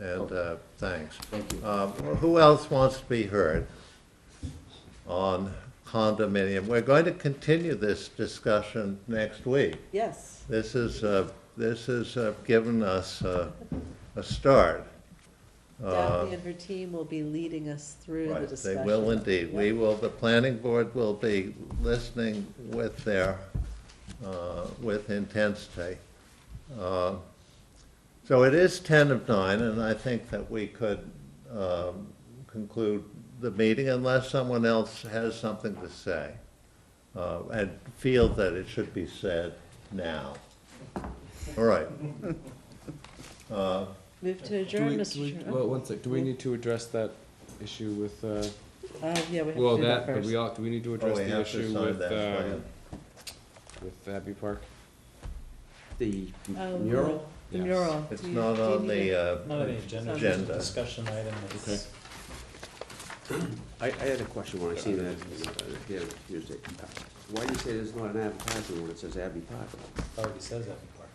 and uh, thanks. Thank you. Um, Who else wants to be heard on condominium? We're going to continue this discussion next week. Yes, This is, uh, this has uh, given us uh, a start. Um, Daphne and her team will be leading us through the Uh, Right, They discussion. will indeed. We will, the planning board will be listening with their, uh, with intensity. Uh, So it is ten of nine, and I think that we could um, conclude the meeting unless someone else has something to say uh, and feel that it should be said now. All right. Uh, Move to Do we- adjourn, do Mr. we- Chairman. Well, one sec, do we need to address that issue with, uh, Uh, yeah, we have to well, do that that, but first. we all, do we need to address Oh, we the have to issue sign with, that um, plan. with Abbey Park? The Um, mural? The Yes. mural. It's Do you- not do you on need it? the uh, Not an agenda, just a Agenda. discussion item. It's- Okay. I, I had a question when I seen that, uh, here, Tuesday. Why do you say there's not an advertisement when it says Abbey Park? Already says that in part,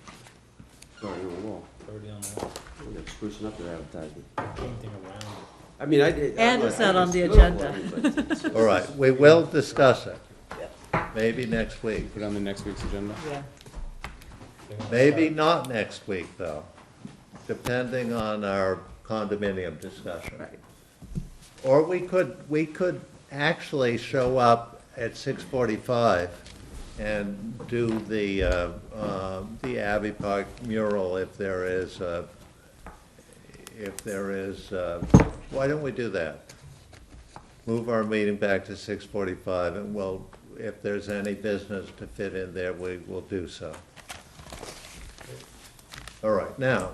Sorry, on the wall. It's already on the wall, They're sprucing up their advertisement. painting around it. I mean, I did. And it's not on the agenda. All right, we will discuss it. Maybe next week. Put it on the next week's uh, agenda? Yeah. They're gonna Maybe start- not next week, though, depending on our condominium discussion. Or we could, we could actually show up at six forty-five and do the, uh, uh, the Abbey Park mural if there is, uh, if there is, uh, why don't we do that? Move our meeting back to six forty-five, and we'll, if there's any business to fit in there, we will do so. All right, now,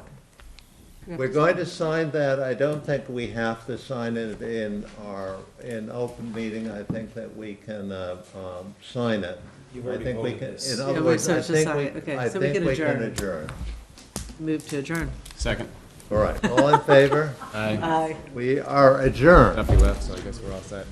we're going to sign that, I don't think we have to sign it in our, in open meeting, I think that we can, uh, um, sign it. You've I already think we voted can- this. In Yeah, other we words, said I to think sign we, it. Okay, I so we think can we can adjourn. adjourn. Move to adjourn. Second. All right, all in favor? Aye. Aye. We are adjourned. Duffy left, so I guess we're all set.